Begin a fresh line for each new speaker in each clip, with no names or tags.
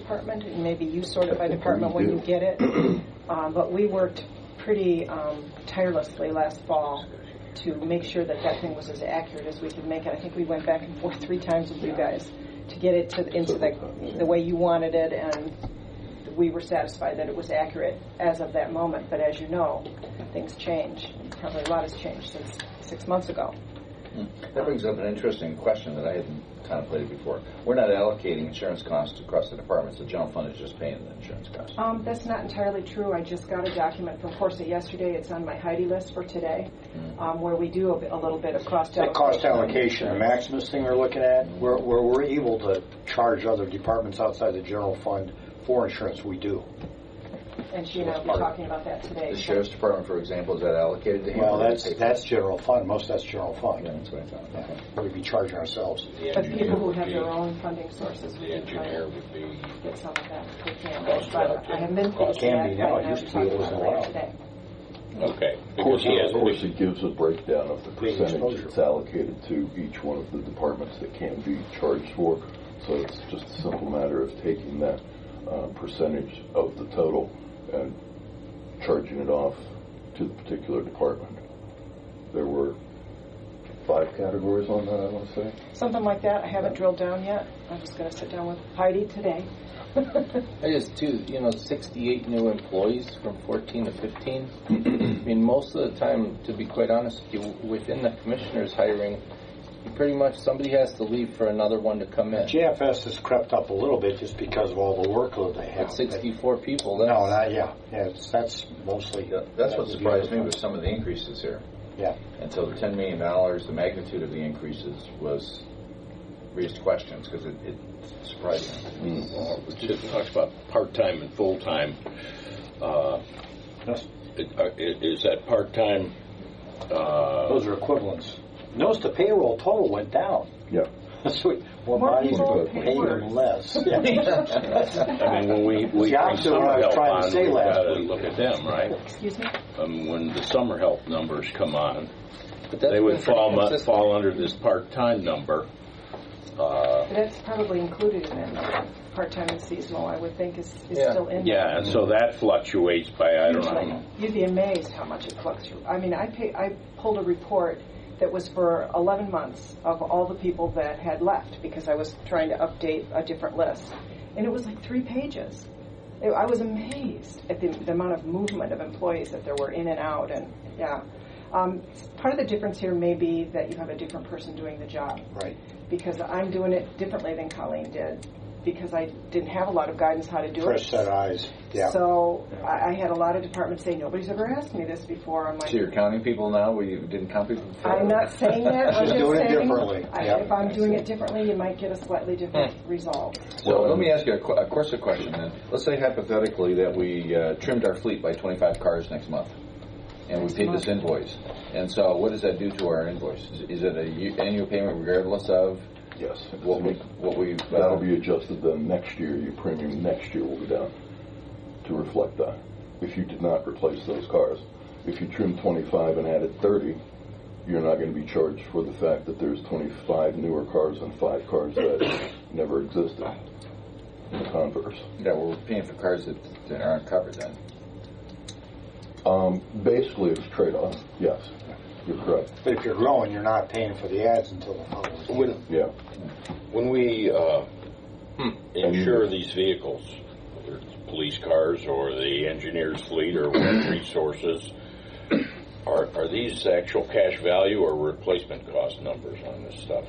department, and maybe you sort it by department when you get it. Um, But we worked pretty um, tirelessly last fall to make sure that that thing was as accurate as we could make it. I think we went back and forth three times with you guys to get it to, into the, the way you wanted it, and we were satisfied that it was accurate as of that moment. But as you know, things change. Probably a lot has changed since six months ago.
That brings up an interesting question that I hadn't contemplated before. We're not allocating insurance costs across the departments. The general fund is just paying the insurance costs.
Um, that's not entirely true. I just got a document from Corsa yesterday. It's on my Heidi list for today,
Mm.
um, where we do a, bit- a little bit of cost
That
allocation.
cost allocation, the Maximus thing we're looking at, where, where we're able to charge other departments outside the general fund for insurance, we do.
And she and I were talking about that today.
The sheriff's department, for example, is that allocated to him?
Well,
or
that's,
they pay-
that's general fund, most of that's general
Yeah,
fund.
that's what I thought. Okay.
We'd be charging ourselves.
But people who have their own funding sources, we
The
can try
engineer
to
would be,
get some of that. if we can.
Cost
But I haven't been paid
allocation. Can be
yet,
now.
but
It
I
used
was
to be. It
talking
wasn't
about that today.
allowed.
okay.
Of
because
course,
he has-
of course, it gives a breakdown of the
Big
percentage
exposure.
that's allocated to each one of the departments that can be charged for. So it's just a simple matter of taking that uh, percentage of the total and charging it off to the particular department. There were five categories on that, I want to say.
Something like that. I haven't drilled down yet. I'm just going to sit down with Heidi today.
That is too, you know, 68 new employees from 14 to 15. I mean, most of the time, to be quite honest with you, within the commissioners hiring, you pretty much somebody has to leave for another one to come in.
JFS has crept up a little bit just because of all the workload they have.
At 64 people,
No,
that's,
not, yeah, yeah, it's- that's mostly.
Yeah, That's what
that would be
surprised me
general
was some of the increases here.
fund. Yeah.
And so the ten million dollars, the magnitude of the increases was raised questions because it, it surprised me.
It just talks about part-time and full-time. Uh,
That's-
it- uh, it- Is that part-time, uh,
Those are equivalents. Notice the payroll total went down.
Yeah.
So we- we're
More
buying,
people
we're
pay
paying
worse.
less. Yeah.
I mean, when we, we
the
bring
opposite of what I
summer
was
help
trying to
on,
say
we
last
gotta
week.
look at them, right?
Excuse me?
Um, When the summer help numbers come on,
but that's
they
been
would
pretty
fall, mu-
consistent.
fall under this part-time number. Uh,
But that's probably included in that number. part-time and seasonal, I would think, is, is
Yeah.
still in there.
Yeah, and so that fluctuates by, I don't know,
You'd be amazed how much it fluctuates. I mean, I pay, I pulled a report that was for 11 months of all the people that had left because I was trying to update a different list, and it was like three pages. It, I was amazed at the, the amount of movement of employees that there were in and out, and yeah. Um, part of the difference here may be that you have a different person doing the job
Right.
because I'm doing it differently than Colleen did because I didn't have a lot of guidance how to do it.
Fresh set of eyes, yeah.
So I, I had a lot of departments say, nobody's ever asked me this before. I'm like,
So you're counting people now? We didn't count people before?
I'm not saying that. I'm
She's
just
doing it
saying,
differently.
I,
Yeah.
if I'm doing it differently, you might get a slightly different result.
So let me ask you a, qu- a Corsa question then. Let's say hypothetically that we uh, trimmed our fleet by 25 cars next month, and we paid this invoice. And so, what does that do to our invoice? Is, is it a ye- annual payment regardless of
Yes.
what we what we? uh,
That'll be adjusted then next year, your premium next year will be down to reflect that, if you did not replace those cars. If you trimmed twenty-five and added thirty, you're not gonna be charged for the fact that there's twenty-five newer cars and five cars that never existed. And Converse.
yeah, we're paying for cars that, that aren't covered then.
Um, basically, it's trade-off, yes, you're correct,
But if you're growing, you're not paying for the ads until the following.
when,
yeah.
when we uh, insure these vehicles, whether it's police cars or the engineer's fleet or what resources, are, are these actual cash value or replacement cost numbers on this stuff?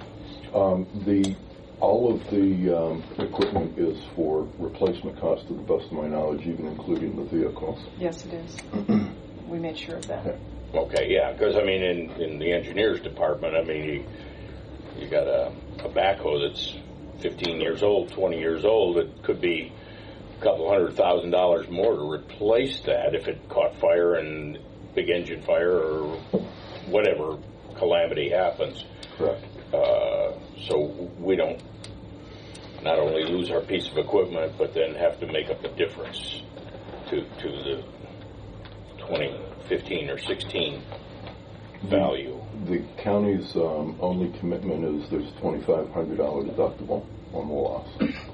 Um, the, all of the, um, equipment is for replacement cost to the best of my knowledge, even including the vehicles.
Yes, it is. we made sure of that.
Okay, yeah, because I mean, in, in the engineer's department, I mean, you, you got a, a backhoe that's 15 years old, 20 years old, it could be a couple hundred thousand dollars more to replace that if it caught fire and big engine fire or whatever calamity happens.
Correct.
Uh, so we don't not only lose our piece of equipment, but then have to make up the difference to, to the 2015 or 16 value.
The county's um, only commitment is there's $2,500 deductible on the loss.